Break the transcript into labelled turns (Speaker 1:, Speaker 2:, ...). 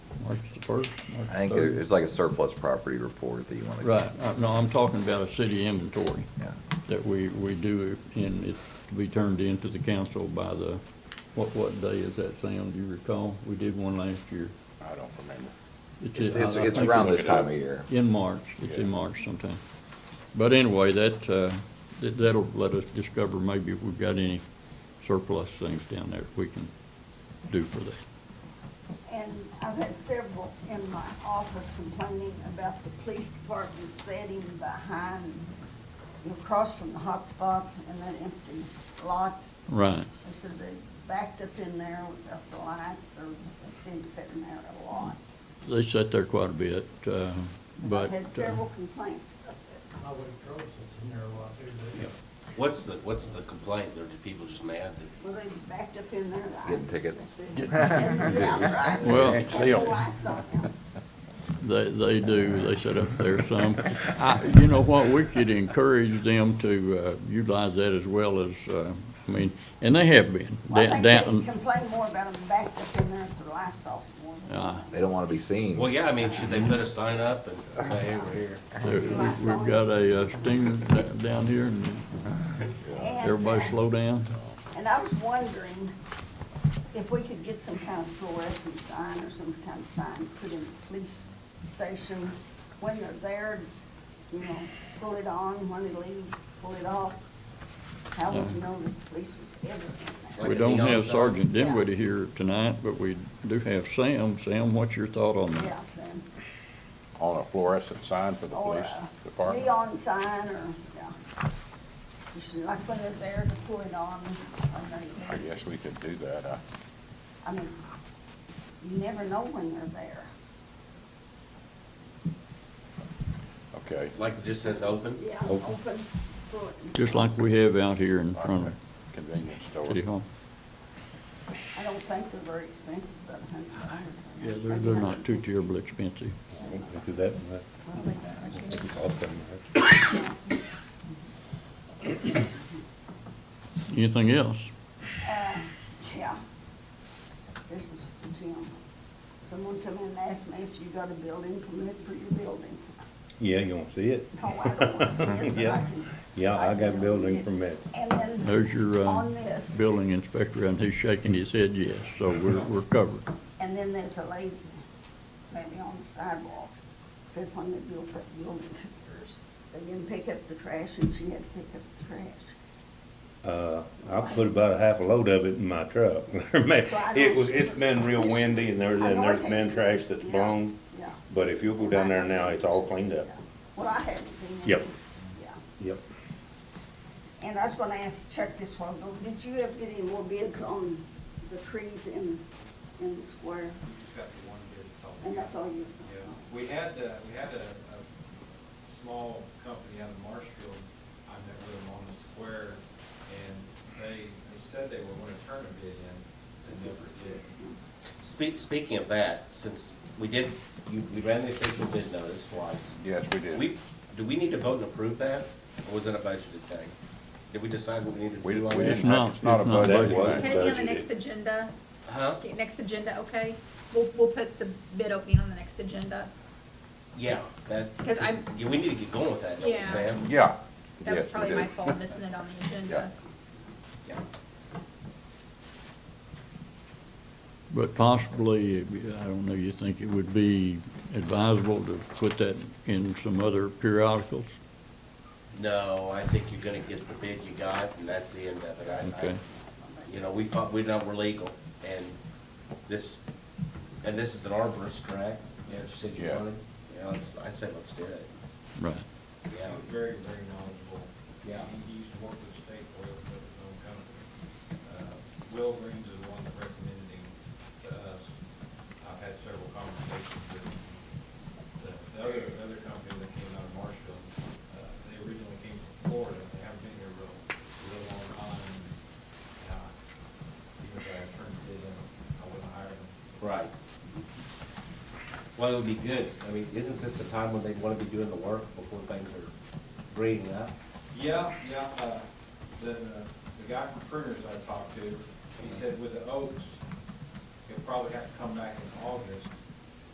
Speaker 1: first?
Speaker 2: I think there- it's like a surplus property report that you want to.
Speaker 1: Right, Uh, no, I'm talking about a city inventory
Speaker 2: Yeah.
Speaker 1: that we, we do, and it's to be turned into the council by the, what, what day is that, Sam, do you recall? We did one last year.
Speaker 3: I don't remember.
Speaker 2: It's,
Speaker 1: I-
Speaker 2: it's,
Speaker 1: I
Speaker 2: it's
Speaker 1: think
Speaker 2: around
Speaker 1: it was
Speaker 2: this time of year.
Speaker 1: In March, it's in
Speaker 3: Yeah.
Speaker 1: March sometime. But anyway, that, uh, that- that'll let us discover maybe if we've got any surplus things down there we can do for that.
Speaker 4: And I've had several in my office complaining about the police department sitting behind, you know, across from the hot spot and that empty lot.
Speaker 1: Right,
Speaker 4: They said they backed up in there without the lights, or they seemed sitting there a lot.
Speaker 1: they sat there quite a bit, uh, but.
Speaker 4: I've had
Speaker 1: uh,
Speaker 4: several complaints about that.
Speaker 5: Highway patrol sits in there a lot too, doesn't it?
Speaker 6: What's the, what's the complaint? Are the people just mad that?
Speaker 4: Well, they backed up in there. I-
Speaker 2: Getting tickets.
Speaker 4: Yeah, right.
Speaker 1: Well-
Speaker 4: Had the lights on them.
Speaker 1: They, they do, they set up there some. I- You know what, we could encourage them to uh, utilize that as well as, uh, I mean, and they have been.
Speaker 4: Well, I
Speaker 1: Down-
Speaker 4: think they
Speaker 1: down-
Speaker 4: complain more about them backed up in there with the lights off more. than-
Speaker 1: Ah.
Speaker 2: They don't want to be seen.
Speaker 6: Well, yeah, I mean, should they put a sign up and say, hey, we're here?
Speaker 1: there- we- We've got a uh, stinger da- down here, and
Speaker 4: And,
Speaker 1: everybody
Speaker 4: uh,
Speaker 1: slow down.
Speaker 4: And I was wondering if we could get some kind of fluorescent sign or some kind of sign put in the police station when they're there, you know, pull it on, when they leave, pull it off. How would you know that the police was ever in there?
Speaker 6: Like
Speaker 1: We
Speaker 6: a
Speaker 1: don't
Speaker 6: neon
Speaker 1: have
Speaker 6: sign?
Speaker 1: Sergeant
Speaker 4: Yeah.
Speaker 1: Dinwiddie here tonight, but we do have Sam. Sam, what's your thought on that?
Speaker 4: Yeah, Sam.
Speaker 3: On a fluorescent sign for the
Speaker 4: Or
Speaker 3: police
Speaker 4: a
Speaker 3: department?
Speaker 4: neon sign or, yeah. Just like when they're there to pull it on, when they're
Speaker 3: I
Speaker 4: there.
Speaker 3: guess we could do that. I-
Speaker 4: I mean, you never know when they're there.
Speaker 3: Okay,
Speaker 6: Like it just says open?
Speaker 4: Yeah,
Speaker 6: Open.
Speaker 4: open for it.
Speaker 1: Just like we have out here in front of
Speaker 3: convenience store.
Speaker 1: City Hall.
Speaker 4: I don't think they're very expensive, but a hundred dollars.
Speaker 1: Yeah, they're, they're not too terribly expensive.
Speaker 7: Do that and that.
Speaker 4: Uh,
Speaker 1: Anything else?
Speaker 4: Uh, yeah. This is for Jim. Someone come in and asked me if you got a building permit for your building.
Speaker 7: Yeah, you gonna see it?
Speaker 4: No, Oh, I don't want to see it, but I
Speaker 7: Yeah,
Speaker 4: can.
Speaker 7: yeah, I
Speaker 4: can
Speaker 7: got building
Speaker 4: read it.
Speaker 7: permit.
Speaker 4: And then.
Speaker 1: There's your,
Speaker 4: On
Speaker 1: uh,
Speaker 4: this,
Speaker 1: building inspector, and he's shaking his head yes, so we're, we're covered.
Speaker 4: and then there's a lady, maybe on the sidewalk, said when they built that building, they didn't pick up the trash and she had to pick up the trash.
Speaker 7: Uh, I put about a half a load of it in my truck. It was, it's been real windy and there's, and there's been trash that's blown,
Speaker 4: Yeah.
Speaker 7: but if you'll go down there now, it's all cleaned up.
Speaker 4: Well, I haven't seen it.
Speaker 7: Yep.
Speaker 4: Yeah,
Speaker 7: Yep.
Speaker 4: and I was gonna ask Chuck this one, but did you ever get any more bids on the trees in, in the square?
Speaker 8: Got the one bid. that's all we
Speaker 4: And that's
Speaker 8: got.
Speaker 4: all you?
Speaker 8: Yeah, we had, uh, we had a, a small company out of Marshfield, I met with them on the square, and they, they said they were gonna turn a bid in, and never did.
Speaker 6: Speak, speaking of that, since we did, you, we ran the official bid notice twice.
Speaker 3: Yes, we
Speaker 6: We,
Speaker 3: did.
Speaker 6: do we need to vote and approve that? Or was it a budgeted thing? Did we decide what we needed to
Speaker 3: We
Speaker 6: do
Speaker 3: didn't,
Speaker 6: on
Speaker 3: we
Speaker 1: It's
Speaker 3: didn't,
Speaker 6: that?
Speaker 1: not-
Speaker 3: have- it's not a
Speaker 1: it's not
Speaker 3: budget
Speaker 7: budgeted.
Speaker 3: thing.
Speaker 9: Can it be on the next
Speaker 7: budgeted.
Speaker 9: agenda?
Speaker 6: Huh?
Speaker 9: Okay, Next agenda, okay. We'll, we'll put the bid opening on the next agenda.
Speaker 6: Yeah, that,
Speaker 9: 'Cause I-
Speaker 6: yeah, we need to get going with that, don't we,
Speaker 9: Yeah.
Speaker 6: Sam?
Speaker 3: Yeah.
Speaker 9: That
Speaker 3: Yes,
Speaker 9: was
Speaker 3: we
Speaker 9: probably
Speaker 3: did.
Speaker 9: my fault, missing it on the agenda.
Speaker 6: Yeah.
Speaker 1: But possibly, I don't know, you think it would be advisable to put that in some other periodicals?
Speaker 6: No, I think you're gonna get the bid you got, and that's the end of it. I, I,
Speaker 1: Okay.
Speaker 6: you know, we thought, we know we're legal, and this, and this is an arborist, correct? Yeah, she said you
Speaker 3: Yeah.
Speaker 6: wanted, yeah, let's, I'd say let's do it,
Speaker 1: Right.
Speaker 6: yeah.
Speaker 8: Very, very knowledgeable.
Speaker 6: Yeah.
Speaker 8: He he used to work with State Oil, but his own company. Uh, Will Green's is the one that recommended him to us. I've had several conversations with the, the other, other company that came out of Marshville. Uh, They originally came from Florida, they haven't been here real, real long time. And, uh, Even though I turned it in, I wouldn't hire them.
Speaker 6: Right. Well, it would be good, I mean, isn't this the time when they'd wanna be doing the work before things are greening up?
Speaker 8: Yeah, yeah, uh, the, the guy from Pruners I talked to, he said with the oaks, he'll probably have to come back in August